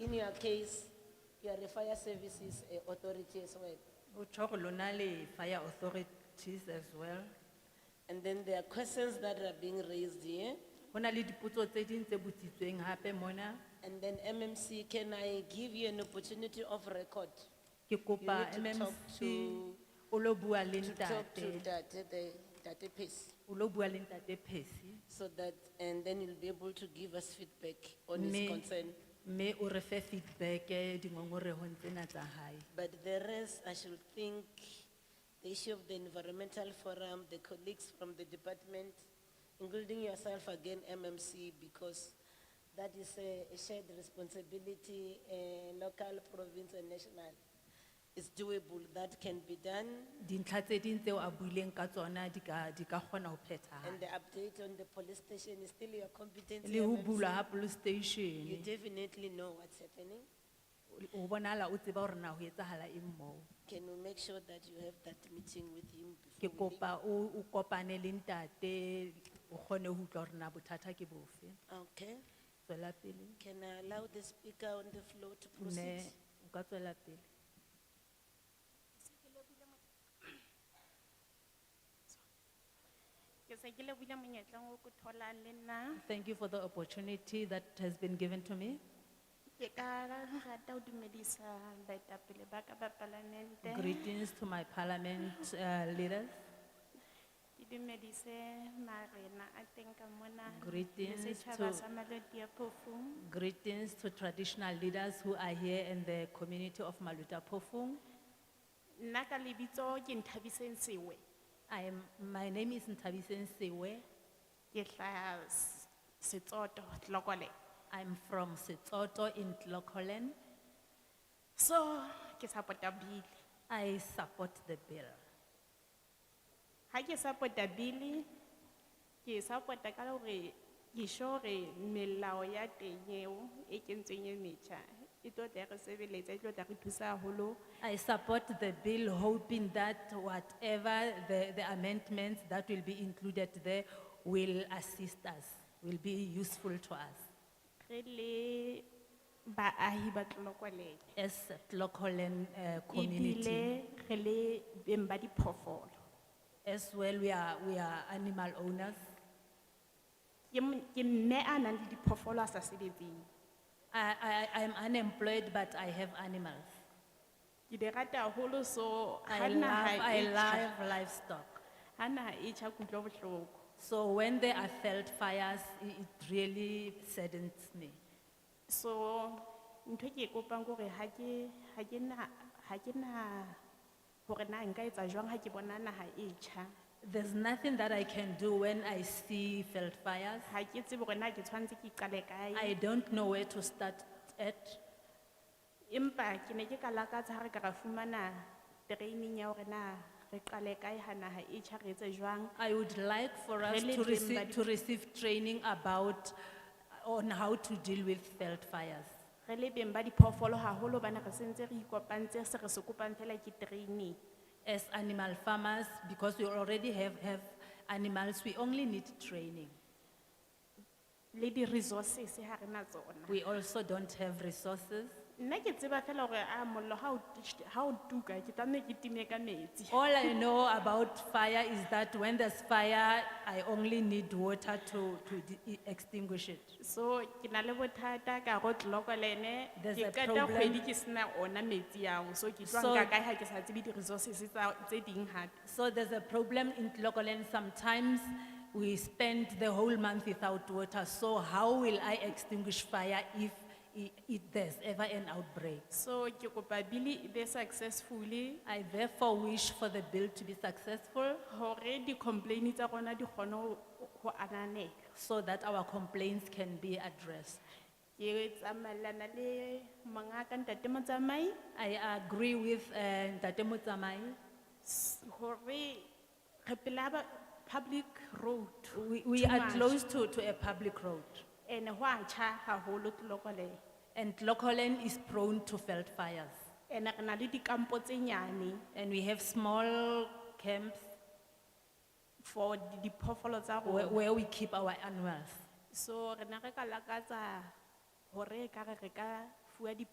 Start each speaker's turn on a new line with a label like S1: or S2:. S1: in your case, you are the fire services eh, authority as well.
S2: Utho lona le fire authorities as well.
S1: And then there are questions that are being raised here.
S2: Hona le dipotso tse ding tse botsitsweng hape mona.
S1: And then MMC, can I give you an opportunity of record?
S2: Ke kopa
S1: You need to talk
S2: MMC
S1: to-
S2: o lo bua le
S1: To talk to
S2: ntate,
S1: that, the, that piece.
S2: o lo bua le ntate Percy.
S1: So that, and then you'll be able to give us feedback on his
S2: Mme,
S1: concern.
S2: mme o re fe feedback eh di ngongorehong tsena tsa hae.
S1: But the rest, I should think, the issue of the environmental forum, the colleagues from the department, including yourself again, MMC, because that is a a shared responsibility, eh, local, province and national. It's doable, that can be done.
S2: Dintlha tse ding tseo a buileng ka tsona di ka di ka kgona ho
S1: And
S2: phethahala.
S1: the update on the police station is still your competence.
S2: Le ho
S1: MMC.
S2: bulwa ha police
S1: You
S2: station,
S1: definitely know what's happening.
S2: o bonahala o tseba hore na ho etsahala eng moo.
S1: Can we make sure that you have that meeting with him
S2: ke
S1: before we leave?
S2: kopa o o kopane le ntate o kgone ho utlwa hore na bothata ke bofe
S1: Okay,
S2: tswela pele
S1: can I allow the speaker on the floor to proceed?
S2: ne o ka tswela pele
S3: ke se ke lebile monyetleng o ko tholang le nna
S2: thank you for the opportunity that has been given to me
S3: ke ka rata ho dumedisa baetapele ba ka ba palamente
S2: greetings to my parliament uh, leaders
S3: ke dumedise marena a teng ka mona le
S2: Greetings
S3: setjhaba
S2: to-
S3: sa malodi a phofu
S2: greetings to traditional leaders who are here in the community of maluta phofung
S3: nna ka lebitso ke nthabiseng sewe
S2: i am my name is ntabiseng sewe
S3: ke hlaha S- setsoto tlokole
S2: i'm from setsoto in tlokolen
S3: so ke support-a bile
S2: i support the bill
S3: ha ke support-a bile ke support-a ka hore ke sure hore melao ya teng eo e kentsweng e metjha e tlo tla re sebeletsa e tlo tla re thusa haholo
S2: I support the bill hoping that whatever the, the amendments that will be included there will assist us, will be useful to us
S3: re le baahi ba tlolokwaleng
S2: as local and uh, community.
S3: ebile re le beng ba diphoofolo
S2: As well, we are, we are animal owners.
S3: ke mon- ke mme a nang le diphoofolo a sa sebetseng
S2: I, I, I'm unemployed, but I have animals.
S3: ke di rata haholo so ha
S2: I love,
S3: naha
S2: I
S3: e tjha-
S2: love livestock.
S3: ha naha e tjha ke utlwa bohloko
S2: So when there are felt fires, i- it really saddens me.
S3: So, ntho ke e kopang kore ha ke, ha ke na, ha ke na, hore na nka etsa jwang ha ke bona naha e tjha.
S2: There's nothing that I can do when I see felt fires.
S3: Ha ke tsebe hore na ke tshwanetse ke qale
S2: I
S3: kae.
S2: don't know where to start at.
S3: Empa ke ne ke ka lakatsa ha re ka ra fumana training ya hore na re qale kae ha naha e tjha re etse jwang.
S2: I would like for us
S3: Really
S2: to
S3: dream
S2: receive,
S3: badi-
S2: to receive training about, on how to deal with felt fires.
S3: Re le beng ba diphoofolo haholo hobane re sentse re ikopantse se re se kopang fela ke training.
S2: As animal farmers, because we already have, have animals, we only need training.
S3: Le di-resources ha re na tsona.
S2: We also don't have resources.
S3: Nna ke tseba fela hore a mollo ha o t- ha o tuka ke tlameha ke time ka metsi.
S2: All I know about fire is that when there's fire, I only need water to, to de- extinguish it.
S3: So, ke na le bothata ka go Tlokolene,
S2: There's a
S3: ke kata
S2: problem.
S3: kgwedi ke sena ona metsi ao, so ke tlo
S2: So-
S3: nka kae ha ke sa tsebe di-resources tsa tse ding hape.
S2: So there's a problem in Tlokolen, sometimes we spend the whole month without water, so how will I extinguish fire if i- it, there's ever an outbreak?
S3: So, ke kopa bili e be successfully,
S2: I therefore wish for the bill to be successful
S3: hore di-complaini tsa rona di kgone ho ho ananela.
S2: so that our complaints can be addressed.
S3: Ke tsamaelana le mongaka ntate motsamai,
S2: I agree with uh, Ntate Motsamai.
S3: s- hore re pela ba- public road.
S2: We, we
S3: too
S2: are
S3: much.
S2: close to, to a public road
S3: Ene ho a tjha haholo Tlokolene.
S2: and Tlokolen is prone to felt fires.
S3: Ene re na le dikampo tse nyane.
S2: And we have small camps
S3: for di- diphoofolo tsa
S2: where,
S3: rona
S2: where we keep our animals.
S3: so rena re ka lakatsa hore e ka re re ka fuwa di